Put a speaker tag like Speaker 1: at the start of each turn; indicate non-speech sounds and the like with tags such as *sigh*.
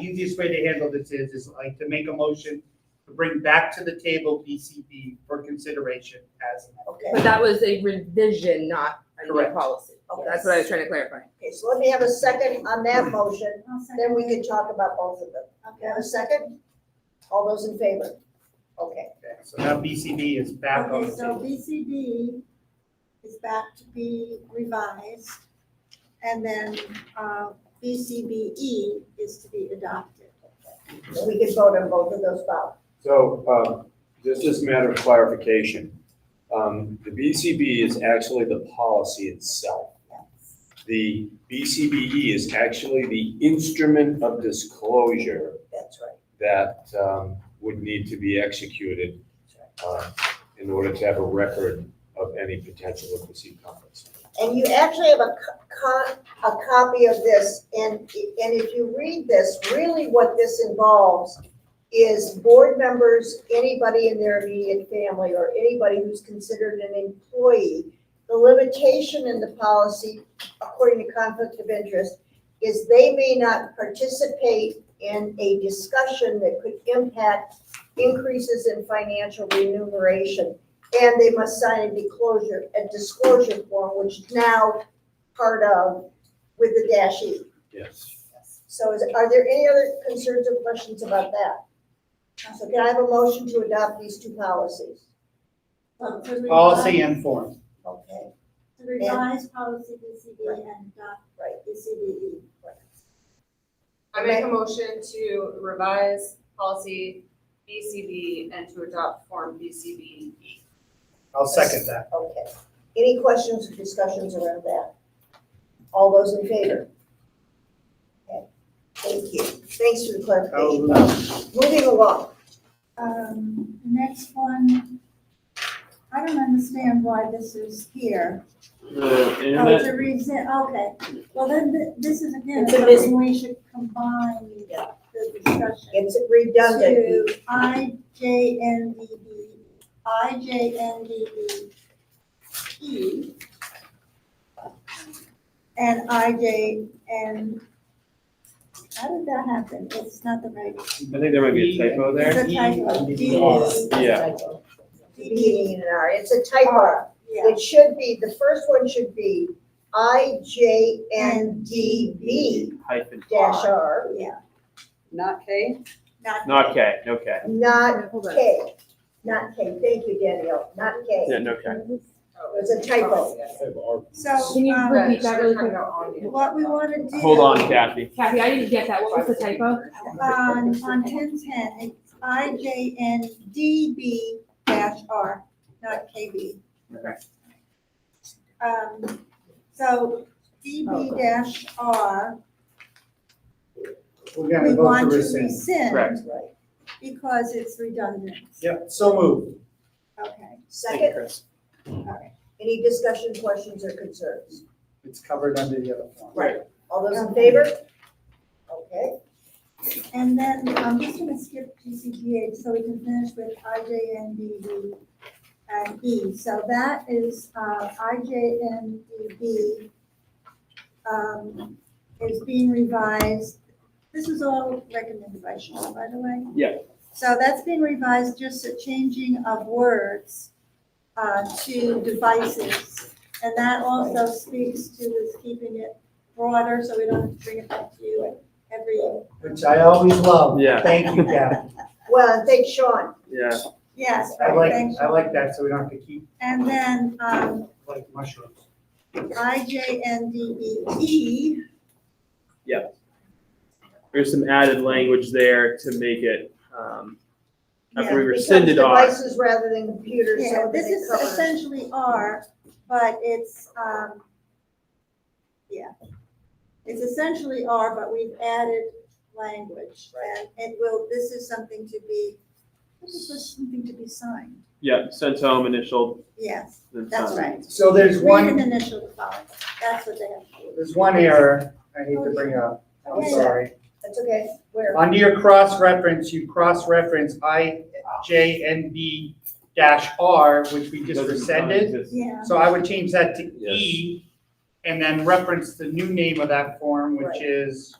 Speaker 1: easiest way to handle this is, is like to make a motion to bring back to the table BCB for consideration as.
Speaker 2: But
Speaker 3: Okay,
Speaker 2: that was a revision, not a new
Speaker 1: Correct.
Speaker 2: policy.
Speaker 3: Okay.
Speaker 2: That's what I was trying to clarify.
Speaker 3: okay, so let me have a second on that motion,
Speaker 4: I'll second.
Speaker 3: then we can talk about both of them.
Speaker 4: Okay.
Speaker 3: Have a second? All those in favor? Okay,
Speaker 1: Okay, So now BCB is back on the
Speaker 4: Okay, so
Speaker 1: table.
Speaker 4: BCD is back to be revised, and then uh, BCBE E is to be adopted.
Speaker 3: so we can vote on both of those now.
Speaker 5: So, um, just as a matter of clarification, um, the BCB is actually the policy itself. The BCBE E is actually the instrument of disclosure
Speaker 3: That's right.
Speaker 5: that, um, would need to be executed, uh, in order to have a record of any potential illicit conduct.
Speaker 3: And you actually have a co- co- a copy of this, and, and if you read this, really what this involves is board members, anybody in their immediate family, or anybody who's considered an employee. The limitation in the policy, according to conflict of interest, is they may not participate in a discussion that could impact increases in financial remuneration and they must sign a disclosure, a disclosure form, which is now part of with the dash E.
Speaker 5: Yes.
Speaker 3: So is, are there any other concerns or questions about that? So can I have a motion to adopt these two policies?
Speaker 4: So to
Speaker 1: Policy
Speaker 4: revise-
Speaker 1: and form.
Speaker 3: Okay,
Speaker 4: To revise policy BCD E and adopt
Speaker 3: right.
Speaker 4: BCBE.
Speaker 6: I make a motion to revise policy BCB and to adopt form BCB.
Speaker 1: I'll second that.
Speaker 3: Okay. Any questions or discussions around that? All those in favor? Okay. Thank you. Thanks for the clarification.
Speaker 1: I'll-
Speaker 3: Moving along.
Speaker 4: Um, the next one, I don't understand why this is here. Oh, it's a reason, okay, well, then th- this is again,
Speaker 3: It's a mis-
Speaker 4: something we should combine the discussion.
Speaker 3: It's redundant.
Speaker 4: To I J N D B, I J N D B E. And I J N, how did that happen? It's not the right,
Speaker 7: I think there might be a typo there.
Speaker 4: it's a typo,
Speaker 1: E-
Speaker 4: D
Speaker 1: E-
Speaker 4: E,
Speaker 7: Yeah.
Speaker 2: E
Speaker 3: D and R. It's a typo.
Speaker 4: yeah.
Speaker 3: It should be, the first one should be I J N D B
Speaker 7: Hyphen
Speaker 3: dash
Speaker 7: R.
Speaker 3: R,
Speaker 4: Yeah,
Speaker 8: Not K?
Speaker 4: E
Speaker 7: Not K, no K.
Speaker 3: not
Speaker 2: Hold on.
Speaker 3: K. Not K, thank you, Danielle, not
Speaker 7: Yeah,
Speaker 3: K.
Speaker 7: no K.
Speaker 3: It was a
Speaker 4: Oh,
Speaker 3: typo.
Speaker 4: so,
Speaker 2: Can you
Speaker 4: um,
Speaker 2: repeat that really quick?
Speaker 4: what we wanna do.
Speaker 7: Hold on, Kathy.
Speaker 2: Kathy, I didn't get that. What was the typo?
Speaker 4: On, on ten ten, it's I J N D B dash R, not K B. Um, so D B dash R,
Speaker 1: We're
Speaker 4: we
Speaker 1: gonna vote to
Speaker 4: want to
Speaker 1: rescind.
Speaker 4: rescind
Speaker 7: Correct.
Speaker 3: That's right.
Speaker 4: because it's redundant.
Speaker 1: Yep, so moved.
Speaker 4: Okay,
Speaker 7: Thank you,
Speaker 3: Second,
Speaker 7: Chris.
Speaker 3: any discussion, questions, or concerns?
Speaker 1: It's covered under the other form.
Speaker 3: Right. All those in favor? Okay,
Speaker 4: and then I'm just gonna skip G C G H so we can finish with I J N D B and E. So that is, uh, I J N D B um, is being revised. This is all recommended by Sean, by the way.
Speaker 7: Yeah.
Speaker 4: So that's being revised, just a changing of words uh, to devices. And that also speaks to this keeping it broader, so we don't have to bring it back to you every.
Speaker 1: Which I always love.
Speaker 7: Yeah.
Speaker 1: Thank you,
Speaker 4: *laughs*
Speaker 1: Kathy.
Speaker 3: well, thank Sean.
Speaker 7: Yeah.
Speaker 4: Yes,
Speaker 1: I
Speaker 4: right, thanks.
Speaker 1: like, I like that, so we don't have to keep
Speaker 4: And then um,
Speaker 1: like mushrooms.
Speaker 4: E, IJNDEE,
Speaker 7: There's some added language there to make it, um, after we
Speaker 4: yeah,
Speaker 3: Becomes
Speaker 7: rescinded R.
Speaker 3: Devices rather than computers,
Speaker 4: yeah,
Speaker 3: so
Speaker 4: this
Speaker 3: it
Speaker 4: is
Speaker 3: covers.
Speaker 4: essentially R, but it's, um, yeah. It's essentially R, but we've added language. And it will, this is something to be, this is just something to be signed. Um,
Speaker 7: Yeah, sent home, initialed,
Speaker 4: Yes,
Speaker 7: then
Speaker 4: that's
Speaker 7: signed.
Speaker 4: right.
Speaker 1: So there's
Speaker 4: Read
Speaker 1: one
Speaker 4: and initial the following. That's what they have to do.
Speaker 1: There's one error I need to bring up, I'm
Speaker 4: Okay.
Speaker 1: sorry.
Speaker 3: That's okay, where?
Speaker 1: Under your cross-reference, you cross-reference I, J, N, B dash R, which we just
Speaker 7: Doesn't
Speaker 1: rescinded.
Speaker 7: exist.
Speaker 4: Yeah,
Speaker 1: So I would change that to
Speaker 5: Yes.
Speaker 1: E and then reference the new name of that form, which
Speaker 3: Right.
Speaker 1: is